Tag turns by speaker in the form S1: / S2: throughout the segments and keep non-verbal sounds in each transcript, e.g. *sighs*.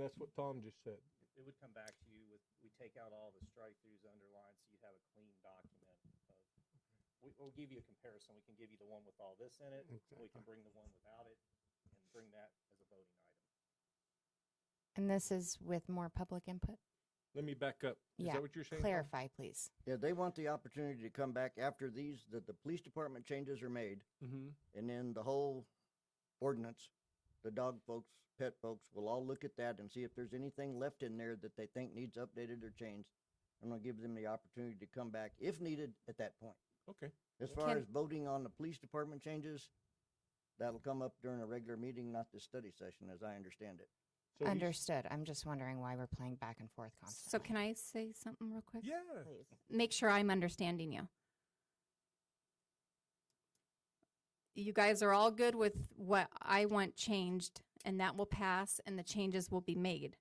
S1: that's what Tom just said.
S2: It would come back to you with, we take out all the strike-throughs underlined, so you'd have a clean document of, we, we'll give you a comparison. We can give you the one with all this in it, we can bring the one without it, and bring that as a voting item.
S3: And this is with more public input?
S1: Let me back up. Is
S3: Yeah,
S1: that what you're saying? Tom?
S3: Clarify, please.
S4: Yeah, they want the opportunity to come back after these, that the police department changes are made,
S1: Mhm.
S4: and then the whole ordinance, the dog folks, pet folks, will all look at that and see if there's anything left in there that they think needs updated or changed. I'm gonna give them the opportunity to come back if needed at that point.
S1: Okay.
S4: As far
S3: Can-
S4: as voting on the police department changes, that'll come up during a regular meeting, not this study session, as I understand it.
S1: So he's-
S3: Understood. I'm just wondering why we're playing back and forth
S5: So
S3: constantly.
S5: can I say something real quick?
S1: Yeah.
S5: Make sure I'm understanding you. You guys are all good with what I want changed and that will pass and the changes will be made.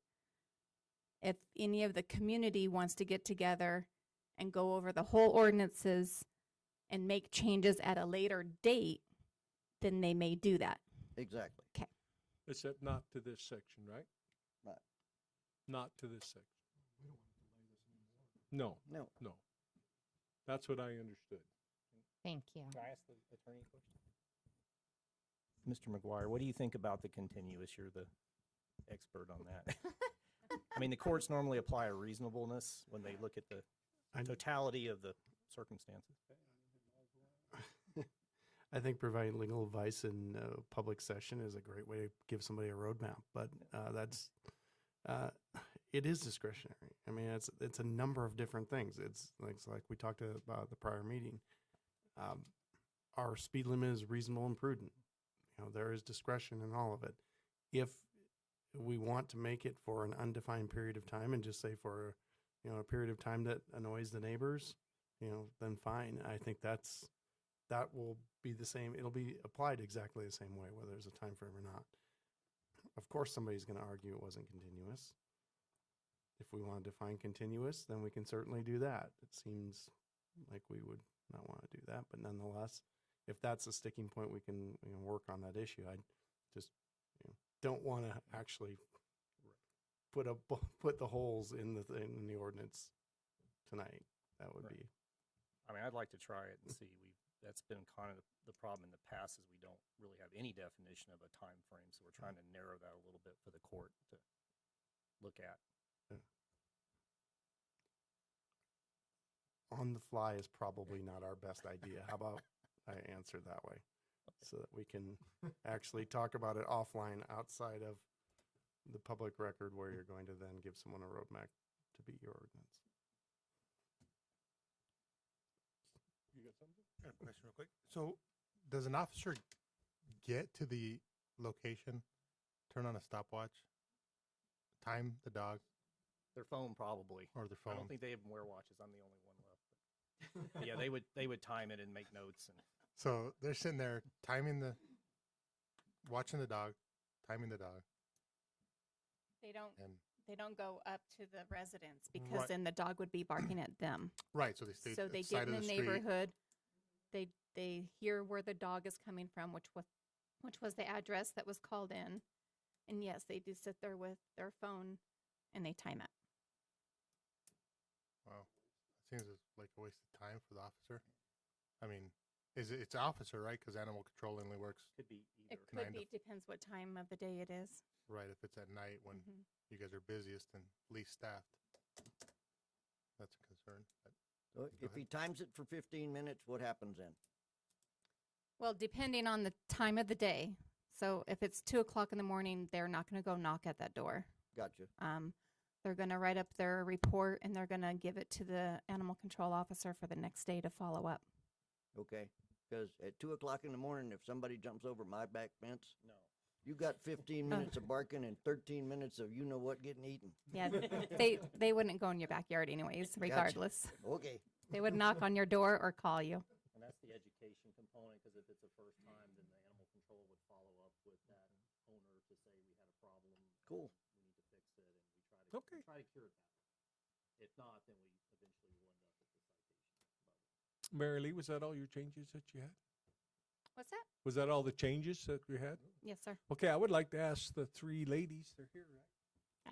S5: If any of the community wants to get together and go over the whole ordinances and make changes at a later date, then they may do that.
S4: Exactly.
S1: Except not to this section, right?
S4: Right.
S1: Not to this section. No,
S4: No,
S1: no. That's what I understood.
S3: Thank you.
S2: Can I ask the attorney a question? Mr. McGuire, what do you think about the continuous? You're the expert on that. I mean, the courts normally apply a reasonableness when they look at the
S6: I-
S2: totality of the circumstances.
S6: I think providing legal advice in uh, public session is a great way to give somebody a roadmap, but uh, that's uh, *sighs* it is discretionary. I mean, it's it's a number of different things. It's like, it's like we talked about at the prior meeting. Um, our speed limit is reasonable and prudent. You know, there is discretion in all of it. If we want to make it for an undefined period of time and just say for you know a period of time that annoys the neighbors, you know, then fine. I think that's that will be the same. It'll be applied exactly the same way, whether it's a time frame or not. Of course, somebody's going to argue it wasn't continuous. If we want to define continuous, then we can certainly do that. It seems like we would not want to do that, but nonetheless, if that's a sticking point, we can you know, work on that issue. I just you know, don't want to actually put a *laughs* bu- put the holes in the thing, in the ordinance tonight. That would
S2: Right.
S6: be
S2: I mean, I'd like to try it and see. We that's been kind of the problem in the past is we don't really have any definition of a time frame, so we're trying to narrow that a little bit for the court to look at.
S6: on the fly is probably not our best idea. How about I answer that way so that we can actually talk about it offline outside of the public record where you're going to then give someone a roadmap to beat your ordinance.
S1: You got something?
S7: Got a question real quick. So does an officer get to the location, turn on a stopwatch, time the dog
S2: Their phone probably.
S7: or their
S2: I
S7: phone?
S2: don't think they even wear watches. I'm the only one left. But yeah, they would they would time it and make notes and
S7: so they're sitting there timing the, watching the dog, timing the dog,
S5: They don't,
S7: and
S5: they don't go up to the residents
S7: because Right.
S5: because then the dog would be barking at them.
S7: right. So they stay
S5: so
S7: at
S5: they
S7: the
S5: get
S7: side
S5: in the,
S7: of the, street.
S5: neighborhood they they hear where the dog is coming from which was which was the address that was called in and yes they do sit there with their phone and they time it
S7: Wow, that seems as- like a waste of time for the officer. I mean, is it, it's officer right? Because animal control only works
S2: could be either.
S5: it could
S7: Kind
S5: be
S7: of.
S5: depends what time of the day it is
S7: right if it's at night when
S5: Mhm.
S7: you guys are busiest and least staffed. That's a concern. but-
S4: so if he times it for fifteen minutes, what happens then?
S5: well depending on the time of the day so if it's two o'clock in the morning they're not going to go knock at that door
S4: Gotcha.
S5: um, they're going to write up their report and they're going to give it to the animal control officer for the next day to follow up
S4: Okay, because at two o'clock in the morning, if somebody jumps over my back fence,
S2: No.
S4: you got fifteen
S5: Oh.
S4: minutes of barking and thirteen minutes of you know what getting eaten.
S5: Yeah, they they wouldn't go in your backyard anyways, regardless.
S4: Okay,
S5: They would knock on your door or call you.
S2: And that's the education component, because if it's a first time, then the animal control would follow up with that owner to say we had a problem.
S4: Cool.
S2: We need to fix it, and we try to,
S1: Okay.
S2: we try to cure it that way. If not, then we eventually will end up with the citation.
S1: Mary Lee, was that all your changes that you had?
S5: What's that?
S1: Was that all the changes that you had?
S5: Yes, sir.
S1: Okay, I would like to ask the three ladies, they're here, right?